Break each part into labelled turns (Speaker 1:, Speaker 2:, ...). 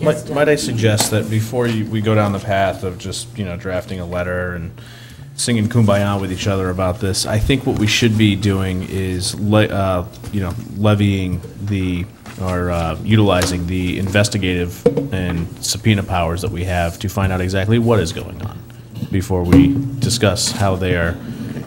Speaker 1: Might
Speaker 2: Yes,
Speaker 1: might I suggest that before you- we go down the path of just, you know, drafting a letter and singing kumbaya with each other about this, I think what we should be doing is, le- uh, you know, levying the, or uh, utilizing the investigative and subpoena powers that we have to find out exactly what is going on before we discuss how they are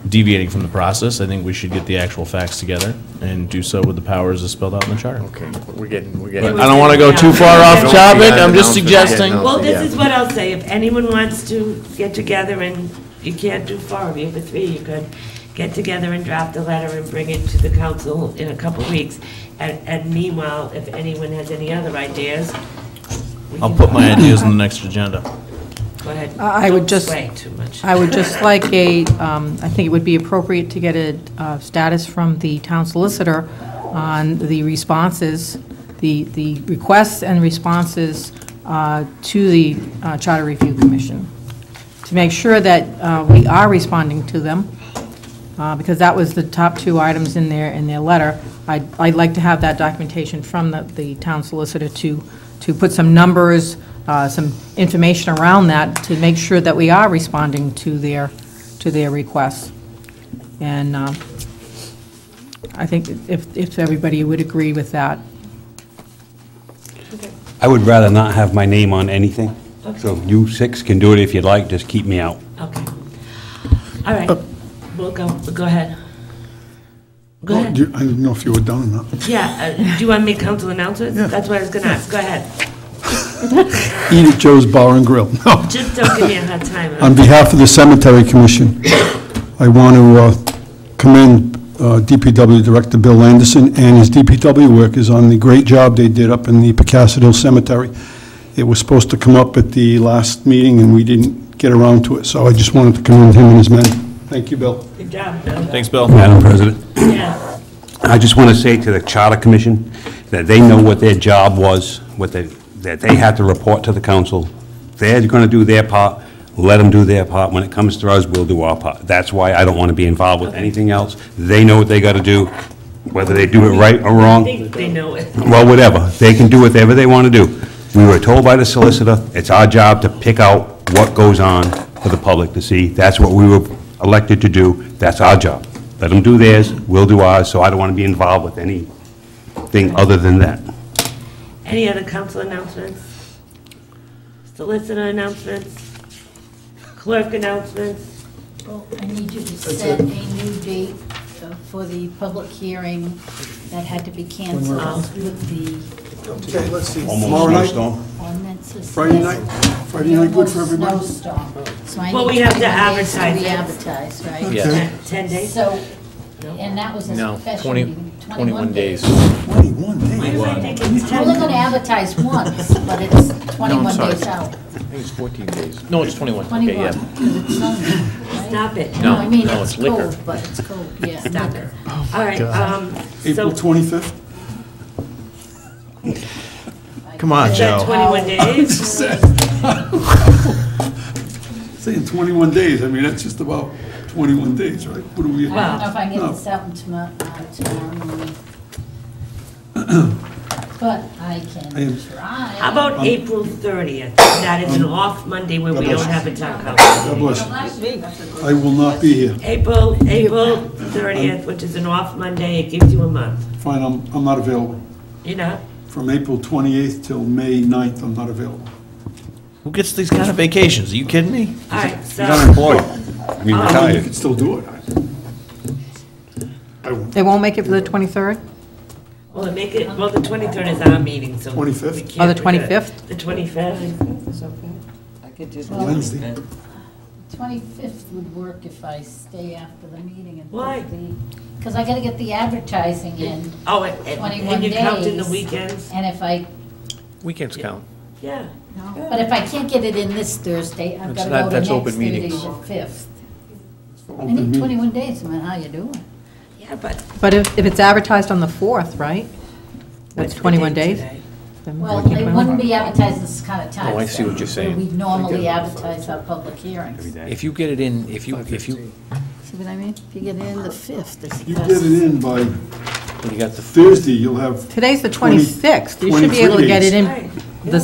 Speaker 1: deviating from the process. I think we should get the actual facts together and do so with the powers as spelled out in the charter.
Speaker 3: Okay, we're getting, we're
Speaker 1: But
Speaker 3: getting.
Speaker 1: I don't want to go too far off
Speaker 2: Don't
Speaker 1: topic,
Speaker 3: be
Speaker 1: I'm just
Speaker 3: unannounced, yeah,
Speaker 1: suggesting.
Speaker 3: no.
Speaker 2: Well, this
Speaker 3: Yeah.
Speaker 2: is what I'll say, if anyone wants to get together and you can't do four of you, but three you could, get together and draft a letter and bring it to the council in a couple weeks. And and meanwhile, if anyone has any other ideas, we
Speaker 1: I'll
Speaker 2: can-
Speaker 1: put my ideas on the next agenda.
Speaker 2: Go ahead.
Speaker 4: I- I would
Speaker 2: Don't
Speaker 4: just-
Speaker 2: sway too much.
Speaker 4: I would just like a, um, I think it would be appropriate to get a uh, status from the town solicitor on the responses, the the requests and responses uh, to the uh, Charter Review Commission, to make sure that uh, we are responding to them, uh, because that was the top two items in their, in their letter. I'd I'd like to have that documentation from the the town solicitor to, to put some numbers, uh, some information around that, to make sure that we are responding to their, to their requests. And um, I think if, if everybody would agree with that.
Speaker 5: I would rather not have my name on anything. So you six can do it if you'd like, just keep me out.
Speaker 2: Okay. All right, we'll go, go ahead. Go
Speaker 6: Well, do
Speaker 2: ahead.
Speaker 6: Oh, you- I didn't know if you were done or not.
Speaker 2: Yeah, uh, do you want me council announcements? That's what I was gonna ask, go ahead.
Speaker 6: Eat at Joe's Bar and Grill. No.
Speaker 2: Just don't give me a hard time.
Speaker 6: On behalf of the Cemetery Commission, I want to uh, commend uh, DPW Director Bill Anderson and his DPW workers on the great job they did up in the Pecassid Hill Cemetery. It was supposed to come up at the last meeting, and we didn't get around to it, so I just wanted to commend him and his men. Thank you, Bill.
Speaker 2: Good job, Bill.
Speaker 1: Thanks, Bill.
Speaker 5: Madam President,
Speaker 2: Yeah.
Speaker 5: I just want to say to the Charter Commission that they know what their job was, what they, that they had to report to the council. They're going to do their part, let them do their part. When it comes to us, we'll do our part. That's why I don't want to be involved with anything else. They know what they got to do, whether they do it right or
Speaker 2: I
Speaker 5: wrong.
Speaker 2: think they know it.
Speaker 5: well, whatever, they can do whatever they want to do. We were told by the solicitor, it's our job to pick out what goes on for the public to see. That's what we were elected to do, that's our job. Let them do theirs, we'll do ours, so I don't want to be involved with anything other than that.
Speaker 2: Any other council announcements? Solicitor announcements? Clerk announcements?
Speaker 7: Well, I need you to set a new date uh, for the public hearing that had to be canceled with
Speaker 6: Let's see,
Speaker 7: the ordinances.
Speaker 6: Friday night? Friday night good for
Speaker 7: Almost
Speaker 6: everybody?
Speaker 7: Snowstorm. So I
Speaker 2: Well,
Speaker 7: need
Speaker 2: we have to
Speaker 7: 20 days
Speaker 2: advertise it.
Speaker 7: re-advertise, right?
Speaker 3: Yeah.
Speaker 2: Ten 10 days?
Speaker 7: So, and that was
Speaker 3: No,
Speaker 7: a special
Speaker 3: 20
Speaker 7: meeting,
Speaker 3: 21 days.
Speaker 6: Twenty-one
Speaker 2: Why
Speaker 6: days.
Speaker 2: am I thinking it's
Speaker 7: We're only
Speaker 2: 10?
Speaker 7: gonna advertise once, but it's 21
Speaker 3: sorry.
Speaker 7: days
Speaker 3: I
Speaker 7: out.
Speaker 3: think it's 14 days. No, it's 21. Okay,
Speaker 7: 21,
Speaker 3: yeah.
Speaker 7: 'cause it's Sunday, right?
Speaker 2: Stop it.
Speaker 3: No,
Speaker 7: I mean,
Speaker 3: no,
Speaker 7: it's
Speaker 3: it's liquor.
Speaker 7: cold, but it's cold, yeah.
Speaker 2: Stop it. All right, um,
Speaker 6: April
Speaker 2: so,
Speaker 6: twenty-fifth?
Speaker 3: Come on,
Speaker 2: is that 21 days?
Speaker 6: Saying twenty-one days, I mean, that's just about twenty-one days, right? What do we?
Speaker 7: I don't know if I can get
Speaker 6: No.
Speaker 7: this out in tomorrow, uh, tomorrow morning. But I can
Speaker 6: am-
Speaker 7: try.
Speaker 2: How about April 30th? That is an off Monday when we don't have a town council.
Speaker 6: God bless you. I will not be here.
Speaker 2: April, April 30th, which is an off Monday, it gives you a month,
Speaker 6: Fine, I'm, I'm not available.
Speaker 2: you know?
Speaker 6: From April 28th till May 9th, I'm not available.
Speaker 1: Who gets these kind of vacations? Are you kidding me?
Speaker 2: All right, so,
Speaker 5: Unemployed, I mean
Speaker 6: I mean, you
Speaker 5: retired.
Speaker 6: can still do it. I won't.
Speaker 4: They won't make it for the 23rd?
Speaker 2: well, it make it, well, the 23rd is our meeting, so. we
Speaker 6: 25th?
Speaker 2: can't
Speaker 4: Oh, the
Speaker 2: do it.
Speaker 4: 25th?
Speaker 2: The 25th.
Speaker 6: Wednesday.
Speaker 7: 25th would work if I stay after the meeting and.
Speaker 2: Why?
Speaker 7: Because I gotta get the advertising in,
Speaker 2: Oh, and, and-
Speaker 7: 21
Speaker 2: and you count in the
Speaker 7: days.
Speaker 2: weekends?
Speaker 7: and if I,
Speaker 3: Weekends count.
Speaker 2: Yeah.
Speaker 7: but if I can't get it in this Thursday, I've
Speaker 3: That's
Speaker 7: gotta
Speaker 3: not-
Speaker 7: go to
Speaker 3: that's
Speaker 7: next
Speaker 3: open
Speaker 7: Thursday, the
Speaker 3: meetings.
Speaker 7: 5th. I
Speaker 6: Open
Speaker 7: need
Speaker 6: meeting.
Speaker 7: 21 days, man, how you doing?
Speaker 2: Yeah, but.
Speaker 4: But if, if it's advertised on the 4th, right? That's 21 days? then we
Speaker 7: Well,
Speaker 4: can
Speaker 7: they
Speaker 4: put it on.
Speaker 7: wouldn't be advertising this kind of time.
Speaker 3: Oh, I see what you're saying.
Speaker 7: We normally advertise our public hearings.
Speaker 3: If you get it in, if you, if you,
Speaker 7: See what I mean? If you get in the fifth, it's.
Speaker 6: You get it in by
Speaker 3: when you got the
Speaker 6: Thursday, you'll have
Speaker 4: Today's the
Speaker 6: Twenty-
Speaker 4: 26th. You should be able to
Speaker 6: 23
Speaker 4: get
Speaker 6: days.
Speaker 4: it in
Speaker 2: Right,
Speaker 4: the